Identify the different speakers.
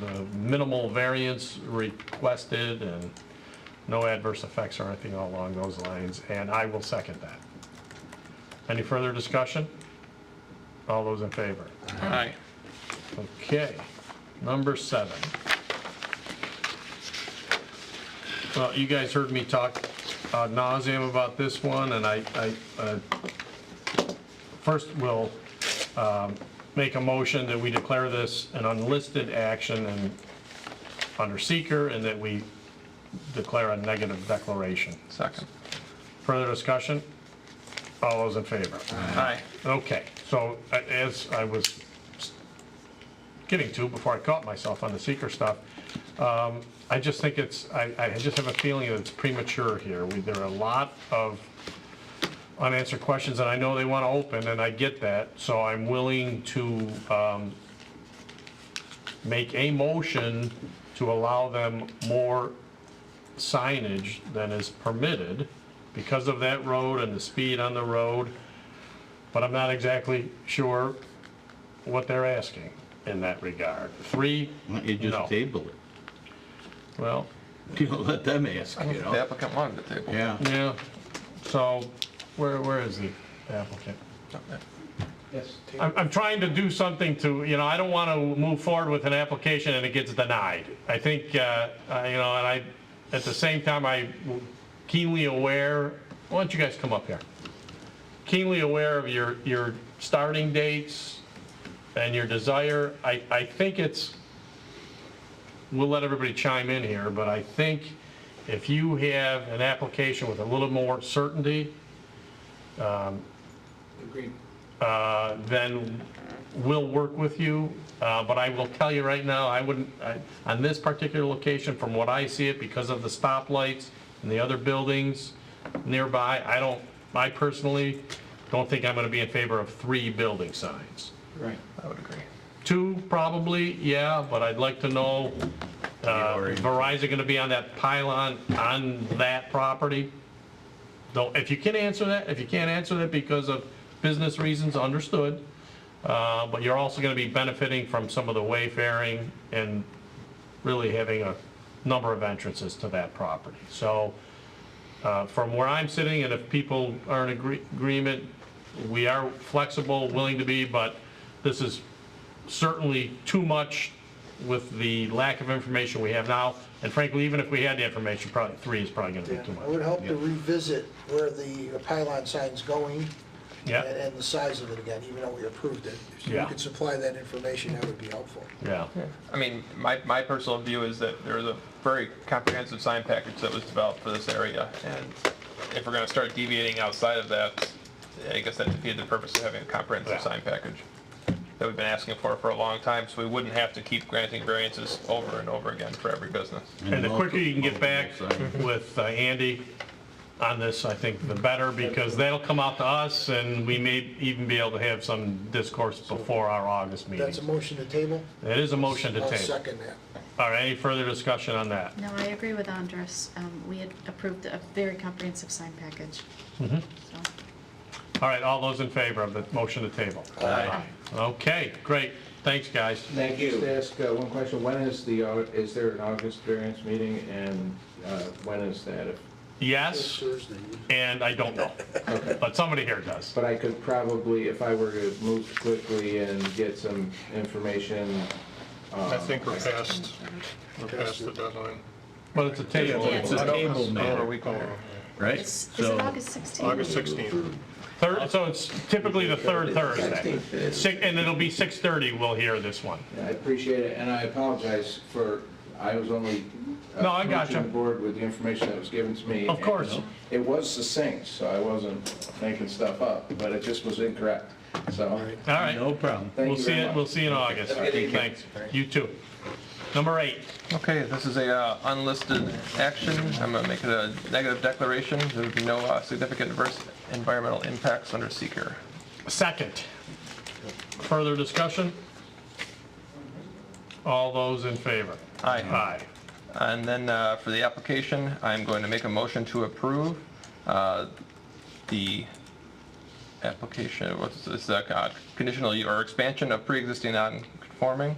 Speaker 1: the minimal variance requested and no adverse effects or anything along those lines, and I will second that. Any further discussion? All those in favor?
Speaker 2: Aye.
Speaker 1: Okay, number seven. Well, you guys heard me talk ad nauseam about this one, and I, I, uh, first will, um, make a motion that we declare this an unlisted action and under seeker, and that we declare a negative declaration.
Speaker 2: Second.
Speaker 1: Further discussion? All those in favor?
Speaker 2: Aye.
Speaker 1: Okay, so a- as I was getting to before I caught myself on the seeker stuff, um, I just think it's, I, I just have a feeling that it's premature here. We- There are a lot of unanswered questions, and I know they want to open, and I get that, so I'm willing to um, make a motion to allow them more signage than is permitted because of that road and the speed on the road but I'm not exactly sure what they're asking in that regard. Three,
Speaker 3: Why don't you
Speaker 1: No.
Speaker 3: just table it?
Speaker 1: well,
Speaker 3: You know, let them ask, you
Speaker 2: The
Speaker 3: know?
Speaker 2: applicant wanted the table.
Speaker 3: Yeah.
Speaker 1: yeah, so where, where is the applicant?
Speaker 4: Yes.
Speaker 1: I'm, I'm trying to do something to, you know, I don't want to move forward with an application and it gets denied. I think, uh, I- you know, and I, at the same time, I keenly aware, why don't you guys come up here? Keenly aware of your, your starting dates and your desire. I, I think it's, we'll let everybody chime in here, but I think if you have an application with a little more certainty,
Speaker 4: Agreed.
Speaker 1: uh, then we'll work with you. Uh, But I will tell you right now, I wouldn't, I- on this particular location, from what I see it, because of the stoplights and the other buildings nearby, I don't, I personally don't think I'm going to be in favor of three building signs.
Speaker 4: Right.
Speaker 2: I would agree.
Speaker 1: Two, probably, yeah, but I'd like to know, uh, Verizon going to be on that pylon on that property? Though, if you can answer that, if you can't answer that because of business reasons, understood. Uh, But you're also going to be benefiting from some of the wayfaring and really having a number of entrances to that property. So uh, from where I'm sitting, and if people are in agree- agreement, we are flexible, willing to be, but this is certainly too much with the lack of information we have now. And frankly, even if we had the information, probably three is probably going to
Speaker 5: Yeah,
Speaker 1: be too
Speaker 5: I would
Speaker 1: much.
Speaker 5: hope to revisit where the pylon sign's going and
Speaker 1: Yeah,
Speaker 5: and the size of it again, even though we approved it. If you
Speaker 1: Yeah. Mm-hmm.
Speaker 5: could supply that information, that would be helpful.
Speaker 1: yeah,
Speaker 2: I mean, my, my personal view is that there was a very comprehensive sign package that was developed for this area. And if we're gonna start deviating outside of that, I guess that defeated the purpose of having a
Speaker 1: Yeah.
Speaker 2: comprehensive sign package that we've been asking for for a long time, so we wouldn't have to keep granting variances over and over again for every business.
Speaker 1: And the quicker you can get back
Speaker 3: multiple signs.
Speaker 1: with uh, Andy on this, I think the better, because that'll come out to us, and we may even be able to have some discourse before our August meeting.
Speaker 5: That's a motion to table?
Speaker 1: It is a motion to
Speaker 5: I'll
Speaker 1: table.
Speaker 5: second that.
Speaker 1: All right, any further discussion on that?
Speaker 6: No, I agree with Andres. Um, We had approved a very comprehensive sign package. So-
Speaker 1: All right, all those in favor of the motion to table? Aye. Okay, great, thanks, guys.
Speaker 7: Thank you. Just ask uh, one question, when is the, au- is there an August variance meeting, and uh, when is that? If-
Speaker 5: It's
Speaker 1: Yes,
Speaker 5: Thursday.
Speaker 1: and I don't know, but somebody here does.
Speaker 7: But I could probably, if I were to move quickly and get some information.
Speaker 8: I think we're past, we're past the deadline.
Speaker 1: But it's a table.
Speaker 6: Yeah,
Speaker 3: It's a table matter,
Speaker 8: week over.
Speaker 3: right?
Speaker 6: It's- Is it August 16th?
Speaker 8: August 16th.
Speaker 1: Third, so it's typically the third Thursday. Six, and it'll be 6:30 we'll hear this one.
Speaker 7: I appreciate it, and I apologize for, I was only. uh,
Speaker 1: No, I gotcha.
Speaker 7: approaching the board with the information that was given to me.
Speaker 1: Of course.
Speaker 7: and It was succinct, so I wasn't making stuff up, but it just was incorrect, so.
Speaker 1: All right,
Speaker 3: No problem.
Speaker 7: Thank
Speaker 1: we'll
Speaker 7: you
Speaker 1: see,
Speaker 7: very
Speaker 1: you-
Speaker 7: much.
Speaker 1: we'll see you in August. Thanks, you too. Number eight,
Speaker 2: Okay, this is a uh, unlisted action. I'm gonna make it a negative declaration. There would be no uh, significant adverse environmental impacts under seeker.
Speaker 1: second. Further discussion? All those in favor?
Speaker 2: Aye.
Speaker 1: Aye.
Speaker 2: And then uh, for the application, I'm going to make a motion to approve uh, the application, what's this, uh, conditional u- or expansion of pre-existing non-conforming